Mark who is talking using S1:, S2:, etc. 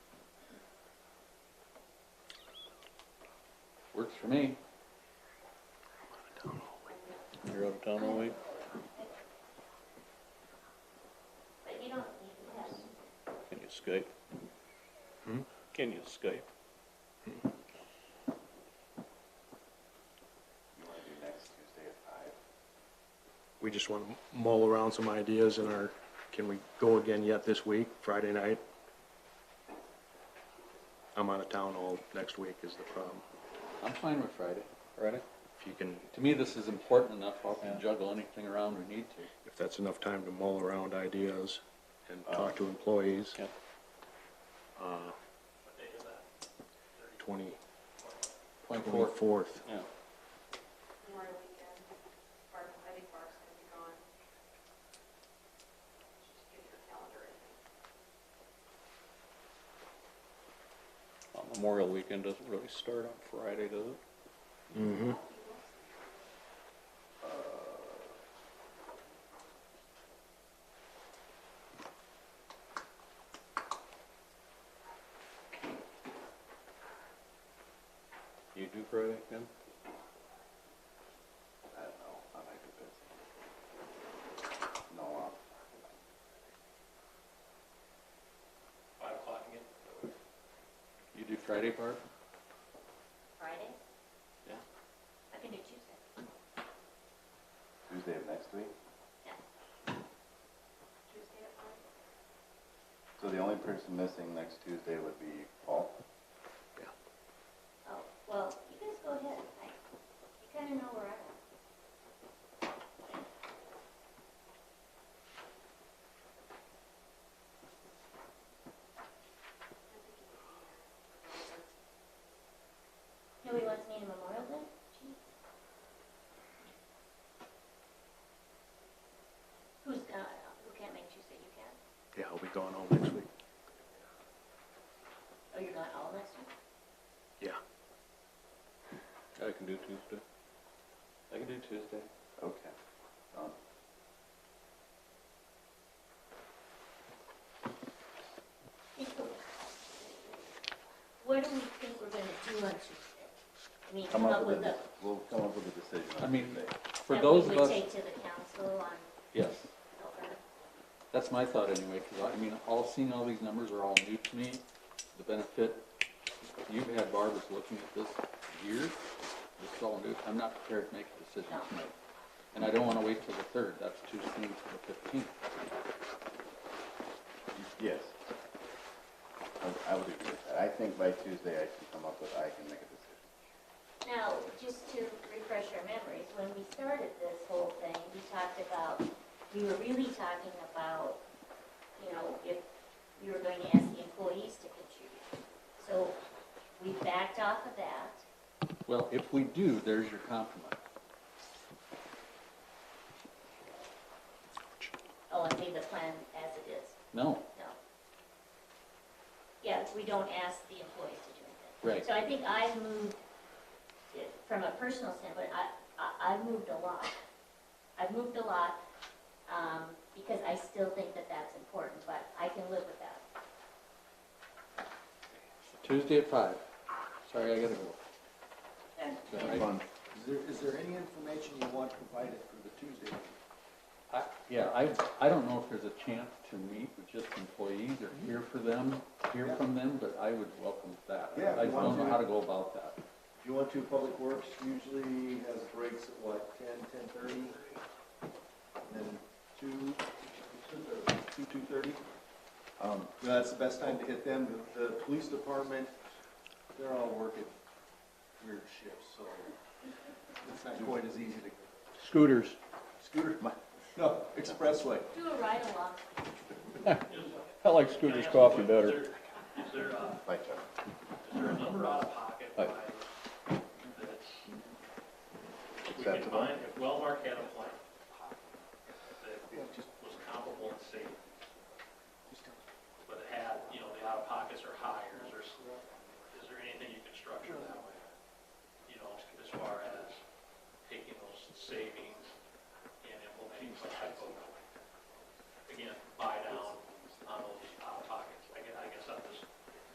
S1: Works for me.
S2: You're out of town all week?
S3: But you don't need this.
S2: Can you Skype? Can you Skype?
S4: You wanna do next Tuesday at five?
S5: We just want to mull around some ideas in our, can we go again yet this week, Friday night? I'm out of town all next week is the problem.
S1: I'm fine with Friday.
S2: Ready?
S5: If you can,
S1: To me, this is important enough. I can juggle anything around we need to.
S5: if that's enough time to mull around ideas and talk to employees.
S2: Yeah.
S5: uh, Twenty,
S1: Point four.
S5: twenty-fourth,
S1: Yeah.
S6: Memorial weekend, Barb, I think Barb's gonna be gone. Just get your calendar in.
S2: Uh, Memorial weekend doesn't really start on Friday, does it?
S1: You do Friday, Kim?
S4: I don't know, I might be busy. No, um,
S1: You do Friday, Barb?
S3: Friday?
S1: Yeah.
S3: I can do Tuesday.
S4: Tuesday of next week,
S3: Yeah.
S6: Tuesday at five?
S4: so the only person missing next Tuesday would be Paul.
S3: Oh, well, you guys go ahead. I, you kind of know where I am. Nobody wants me to Memorial Day? Jeez. Who's, uh, who can't make Tuesday? You can?
S5: yeah, I'll be gone all next week,
S3: Oh, you're gone all next week?
S5: yeah.
S2: I can do Tuesday.
S1: I can do Tuesday.
S4: Okay. Um,
S3: What do we think we're gonna do on Tuesday? I mean,
S4: Come up with a, we'll come up with a decision
S1: I
S4: on
S1: mean,
S4: Tuesday.
S1: For those of
S3: That we would
S1: us,
S3: take to the council on,
S1: yes,
S3: November.
S1: that's my thought anyway, because I mean, all, seeing all these numbers are all new to me. The benefit, you've had barbers looking at this year, this is all new. I'm not prepared to make a decision tonight. And I don't want to wait till the third, that's too soon for the fifteenth.
S4: Yes. I would- I would agree with that. I think by Tuesday I can come up with, I can make a decision.
S3: Now, just to refresh our memories, when we started this whole thing, we talked about, we were really talking about, you know, if we were going to ask the employees to contribute. So we backed off of that.
S1: Well, if we do, there's your compromise.
S3: Oh, and leave the plan as it is.
S1: No,
S3: No. Yeah, we don't ask the employees to do anything.
S1: Right.
S3: So I think I moved, eh, from a personal standpoint, I, I, I moved a lot. I've moved a lot, um, because I still think that that's important, but I can live with that.
S1: Tuesday at five. Sorry, I gotta go. Is that right?
S4: Fun.
S7: Is there, is there any information you want provided for the Tuesday?
S1: I- Yeah, I, I don't know if there's a chance to meet with just employees or hear for them, hear
S7: Yeah.
S1: from them, but I would welcome that.
S7: Yeah,
S1: I
S7: you want
S1: don't know
S7: to-
S1: how to go about that.
S7: If you want to, Public Works usually has breaks at what, ten, ten-thirty? And then two, two, two-thirty?
S4: Um,
S7: That's the best time to hit them. The- The police department, they're all working weird shifts, so it's not quite as easy to
S1: Scooters.
S7: scooter, my, no, expressway.
S3: Do a ride along.
S2: I like Scooter's coffee better.
S8: Is there, uh,
S4: by Chuck.
S8: is there a number out of pocket
S2: Aye.
S8: by that's, we can
S4: Acceptable.
S8: find, if Wellmark had a plan that was comparable and safe, but it had, you know, the out of pockets are higher, is there, is there anything you can structure that way? You know, as far as taking those savings